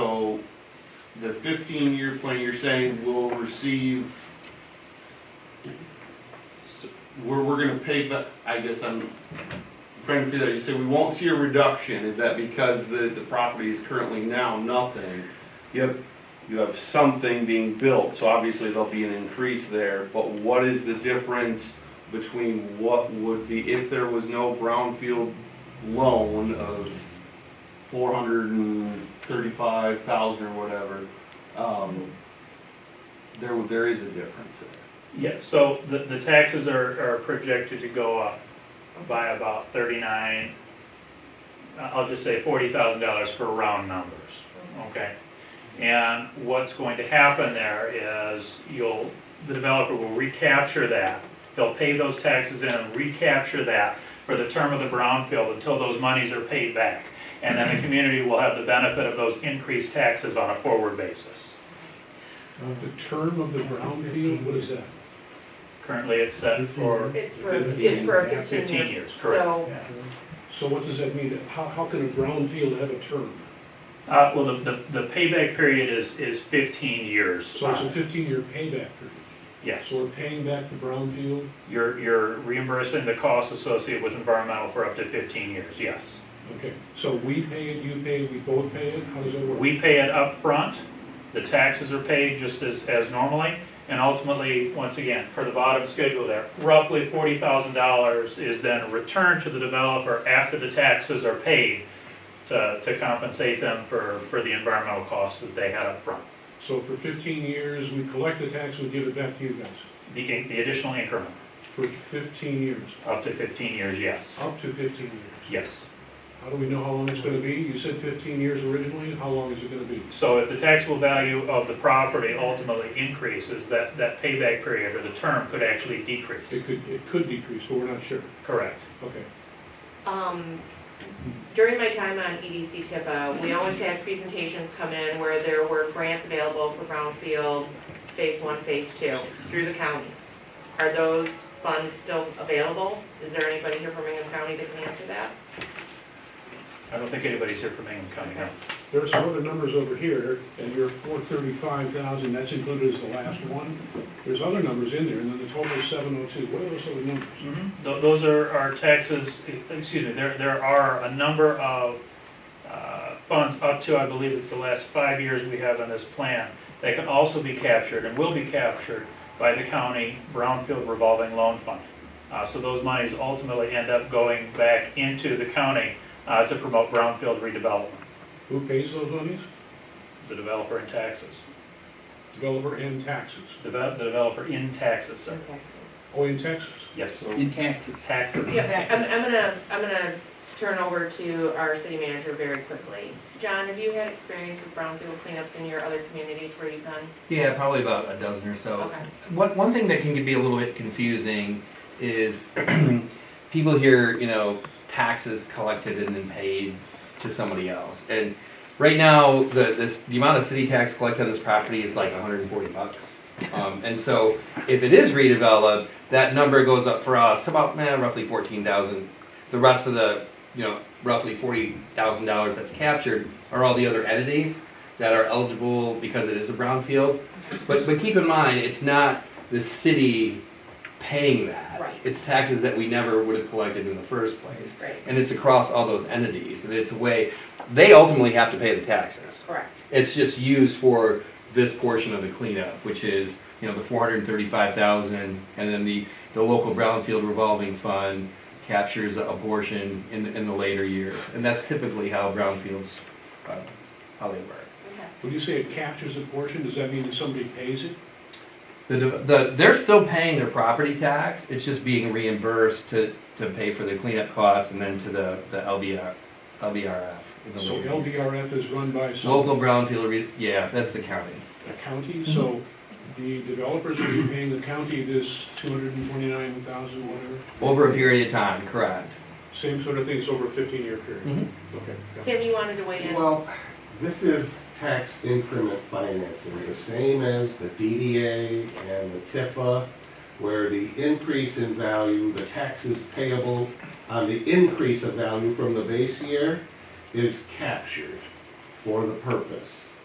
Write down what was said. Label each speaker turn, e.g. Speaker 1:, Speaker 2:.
Speaker 1: the fifteen-year plan, you're saying will receive, so we're, we're gonna pay, but I guess I'm trying to figure out, you say we won't see a reduction, is that because the, the property is currently now nothing? You have, you have something being built, so obviously there'll be an increase there, but what is the difference between what would be, if there was no brownfield loan of four hundred and thirty-five thousand or whatever, um, there, there is a difference there.
Speaker 2: Yeah, so the, the taxes are, are projected to go up by about thirty-nine, uh, I'll just say forty thousand dollars for round numbers, okay? And what's going to happen there is you'll, the developer will recapture that. They'll pay those taxes in and recapture that for the term of the brownfield until those monies are paid back. And then the community will have the benefit of those increased taxes on a forward basis.
Speaker 3: Uh, The term of the brownfield, what is that?
Speaker 2: Currently, it's set for
Speaker 4: It's for, it's for a fifteen
Speaker 2: fifteen
Speaker 4: year.
Speaker 2: years, correct?
Speaker 4: So-
Speaker 2: yeah.
Speaker 3: So what does that mean? How, how can a brownfield have a term?
Speaker 2: Uh, well, the, the, the payback period is, is fifteen years.
Speaker 3: So it's a fifteen-year payback period.
Speaker 2: Yes,
Speaker 3: So we're paying back the brownfield?
Speaker 2: you're, you're reimbursing the costs associated with environmental for up to fifteen years, yes.
Speaker 3: Okay, so we pay it, you pay it, we both pay it? How does that work?
Speaker 2: We pay it up front. the taxes are paid just as, as normally, and ultimately, once again, for the bottom schedule there, roughly forty thousand dollars is then returned to the developer after the taxes are paid to, to compensate them for, for the environmental costs that they had up front.
Speaker 3: So for fifteen years, we collect the tax, we give it back to you guys?
Speaker 2: The, the additional increment,
Speaker 3: For fifteen years,
Speaker 2: up to fifteen years, yes,
Speaker 3: up to fifteen years?
Speaker 2: yes.
Speaker 3: How do we know how long it's gonna be? You said fifteen years originally, how long is it gonna be?
Speaker 2: So if the taxable value of the property ultimately increases, that, that payback period or the term could actually decrease.
Speaker 3: It could, it could decrease, but we're not sure.
Speaker 2: Correct.
Speaker 3: Okay.
Speaker 4: Um, during my time on E EDC TIPA, we always had presentations come in where there were grants available for brownfield, phase one, phase two, through the county. Are those funds still available? Is there anybody here from Ingham County that can answer that?
Speaker 2: I don't think anybody's here from Ingham County, no.
Speaker 3: There are some other numbers over here, and your four thirty-five thousand, that's included as the last one. There's other numbers in there, and then the total is seven oh two. What are those other numbers?
Speaker 2: Tho- Mm-hmm. Those are our taxes, e-, excuse me, there, there are a number of uh, funds up to, I believe it's the last five years we have on this plan, that can also be captured and will be captured by the county brownfield revolving loan fund. Uh, So those monies ultimately end up going back into the county uh, to promote brownfield redevelopment,
Speaker 3: Who pays those monies?
Speaker 2: the developer in taxes,
Speaker 3: Developer and taxes.
Speaker 2: Deve- the developer in taxes, sir.
Speaker 3: Oh, in Texas.
Speaker 2: Yes,
Speaker 1: So,
Speaker 5: In taxes.
Speaker 2: taxes.
Speaker 4: Yeah, I'm, I'm gonna, I'm gonna turn over to our city manager very quickly. John, have you had experience with brownfield cleanups in your other communities where you've gone?
Speaker 5: Yeah, probably about a dozen or so.
Speaker 4: Okay.
Speaker 5: One, one thing that can be a little bit confusing is people hear, you know, taxes collected and then paid to somebody else. And right now, the, this, the amount of city tax collected on this property is like hundred and forty bucks. Um, and so if it is redeveloped, that number goes up for us to about, eh, roughly fourteen thousand. The rest of the, you know, roughly forty thousand dollars that's captured are all the other entities that are eligible because it is a brownfield. But, but keep in mind, it's not the city paying that.
Speaker 4: Right.
Speaker 5: It's taxes that we never would have collected in the first place.
Speaker 4: Great.
Speaker 5: And it's across all those entities, and it's a way, they ultimately have to pay the taxes.
Speaker 4: Correct.
Speaker 5: It's just used for this portion of the cleanup, which is, you know, the four hundred and thirty-five thousand, and then the, the local brownfield revolving fund captures abortion in, the- in the later years. And that's typically how brownfields, uh, how they work.
Speaker 4: Okay.
Speaker 3: When you say it captures a portion, does that mean that somebody pays it?
Speaker 5: The, the, they're still paying their property tax, it's just being reimbursed to, to pay for the cleanup costs and then to the, the LBR, LBRF. in the
Speaker 3: So
Speaker 5: later years.
Speaker 3: LBRF is run by some
Speaker 5: Local brownfield, re- yeah, that's the county.
Speaker 3: a county, so the developers will be paying the county this two hundred and twenty-nine thousand, whatever.
Speaker 5: Over a period of time, correct.
Speaker 3: Same sort of thing, it's over a fifteen-year period.
Speaker 5: Mhm.
Speaker 3: Mm-hmm. Okay. got it.
Speaker 4: Tim, you wanted to weigh in?
Speaker 6: Well, this is tax increment financing, the same as the DDA and the TIFA, where the increase in value, the taxes payable on the increase of value from the base year is captured for the purpose.